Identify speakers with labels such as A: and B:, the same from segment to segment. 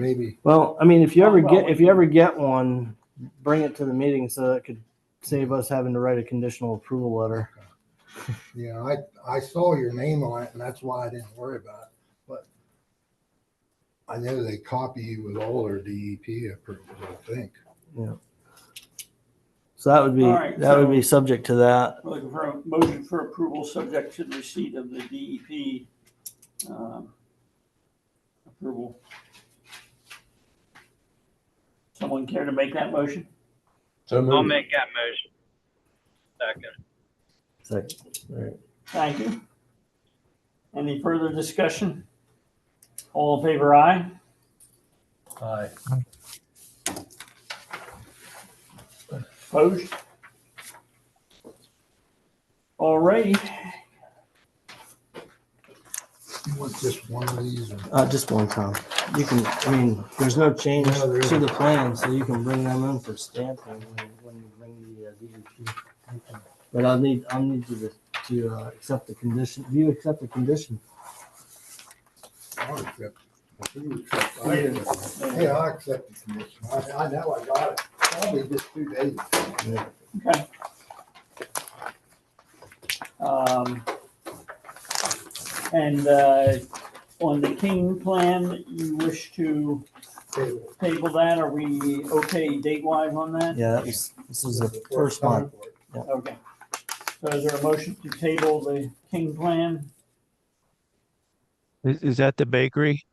A: maybe.
B: Well, I mean, if you
C: Oh,
B: ever
C: well,
B: get,
C: we
B: if you
C: can-
B: ever get one, bring it to the meeting so that could save us having to write a conditional approval letter.
A: Yeah, I, I saw your name on it and that's why I didn't worry about it, but I know they copy you with all their DEP approvals, I think.
B: So that would be,
C: All right,
B: that would
C: so-
B: be subject to that.
C: We're Looking for a motion for approval subject to the receipt of the DEP um, approval. Someone care to make that motion?
A: So
D: I'll make that motion. Second.
B: Second. All right.
C: Thank you. Any further discussion? All in favor, aye?
A: Aye.
C: Opposed? All right,
A: You want just one of these and
B: Uh, just one time. You can, I mean, there's no change
A: No, there
B: to the
A: isn't.
B: plan, so you can bring them in for stamping when when you bring the uh, DEP.
A: Okay.
B: But I'll need, I'll need you to, to uh, accept the condition. Do you accept the condition?
A: I'll accept. it. You accept it. I didn't- Yeah, I accept the commission. I, I know I got it. Probably just two days.
C: okay. Um, And uh, on the King plan, you wish to
A: Table.
C: table that? Are we okay date-wise on that?
B: Yeah, that was, this is the first one.
C: Okay. So is there a motion to table the King plan?
E: Is, is that the bakery?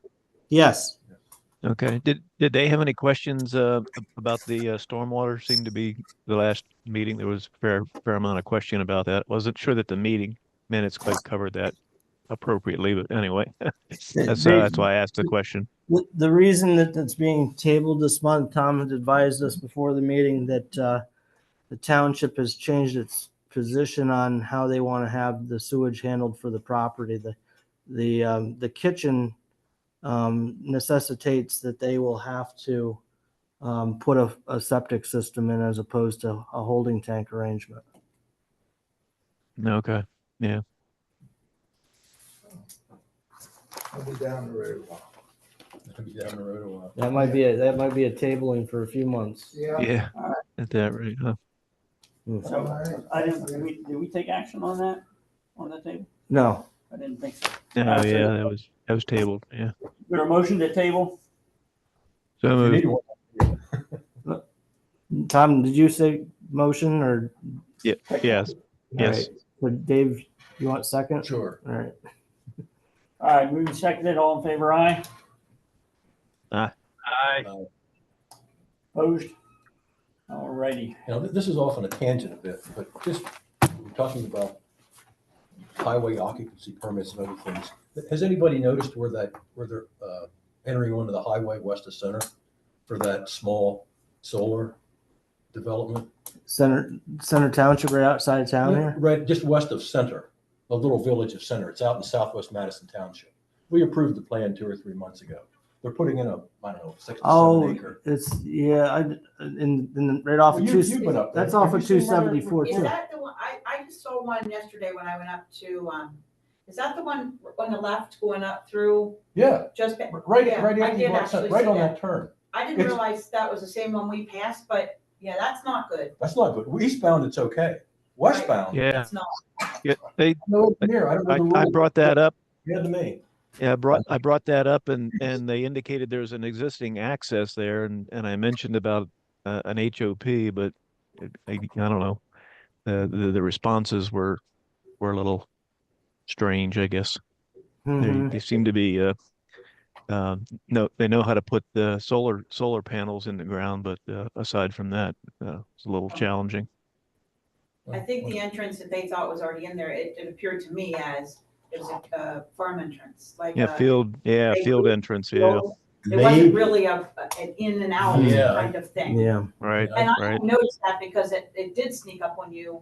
B: Yes.
E: Okay. Did, did they have any questions, uh, about the, uh, stormwater? Seemed to be the last meeting, there was a fair, fair amount of question about that. Wasn't sure that the meeting minutes quite covered that appropriately, but anyway. That's, uh, that's why I asked the question.
B: The, the reason that it's being tabled this month, Tom had advised us before the meeting that, uh, the township has changed its position on how they want to have the sewage handled for the property. The, the, um, the kitchen, um, necessitates that they will have to, um, put a, a septic system in as opposed to a holding tank arrangement.
E: Okay.
A: I'll be down the road a while. I'll be down the road a while.
B: That might be, a that might be a tabling for a few months.
A: Yeah.
E: Yeah. At that rate, huh?
C: So I didn't, did we, did we take action on that, on the table?
B: No,
C: I didn't think so.
E: Yeah,
C: Absolutely.
E: yeah, that was, that was tabled, yeah.
C: Is There a motion to table?
E: So moved.
B: Tom, did you say motion or?
E: yes, yes.
B: All right. So Dave, you want second?
A: Sure.
B: All right.
C: All right, moving seconded, all in favor, aye?
D: Aye.
C: Opposed? All righty.
F: Now, th- this is off on a tangent a bit, but just we're talking about highway occupancy permits and other things. Has anybody noticed where that, where they're uh, entering onto the highway west of center for that small solar development?
B: Center, Center Township right outside of town here?
F: Right, just west of center, a little village of center. It's out in southwest Madison Township. We approved the plan two or three months ago. They're putting in a, I don't know, six to
B: Oh,
F: seven acre.
B: it's, yeah, I, in, in, right off of
F: You-
B: two,
F: you've been up there.
B: that's off
F: Have
B: of
F: you
B: two
F: seen where-
B: seventy-four
G: Is
B: too.
G: that the one, I, I just saw one yesterday when I went up to, um, is that the one on the left going up through
F: Yeah,
G: just, ba-
F: right,
G: Yeah,
F: right,
G: I
F: after you
G: did
F: go outside-
G: actually
F: right
G: see
F: on
G: that.
F: that turn.
G: I didn't
F: It's-
G: realize that was the same one we passed, but yeah, that's not good.
F: That's not good. Eastbound, it's okay. Westbound,
E: Yeah,
G: It's not.
E: yeah, they,
F: no engineer. I don't
E: I,
F: know the
E: I
F: rule.
E: brought that up
F: Yeah, to me.
E: Yeah, I brought, I brought that up and, and they indicated there's an existing access there and, and I mentioned about uh, an HOP, but it- I, I don't know. The, the, the responses were, were a little strange, I guess. They,
B: Mhm.
E: they seem to be, uh, uh, no, they know how to put the solar, solar panels in the ground, but, uh, aside from that, uh, it's a little challenging.
G: I think the entrance that they thought was already in there, it, it appeared to me as it was a, uh farm entrance, like.
E: Yeah,
G: a-
E: field, yeah,
G: they-
E: field entrance, yeah,
G: It wasn't really a, an in and out
F: Yeah.
G: kind of thing.
B: Yeah,
E: right,
G: And I
E: right.
G: didn't notice that because it, it did sneak up on you,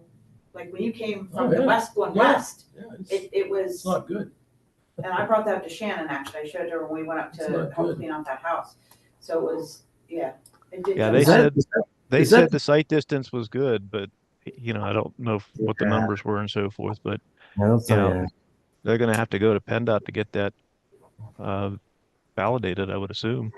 G: like when you came
F: Oh,
G: from the
F: yeah.
G: west going
F: Yeah.
G: west,
F: Yeah, it's,
G: it, it was.
F: it's not good.
G: And I brought that up to Shannon, actually. I showed her when we went up
F: It's
G: to
F: not
G: help
F: good.
G: clean out that house. So it was, yeah. it did-
E: Yeah,
G: it
E: they
G: was-
E: said, they
B: is that-
E: said the site distance was good, but you know, I don't know if- what the
B: Yeah.
E: numbers were and so forth, but
B: I don't
E: You
B: think-
E: know, they're gonna have to go to PennDOT to get that uh validated, I would assume.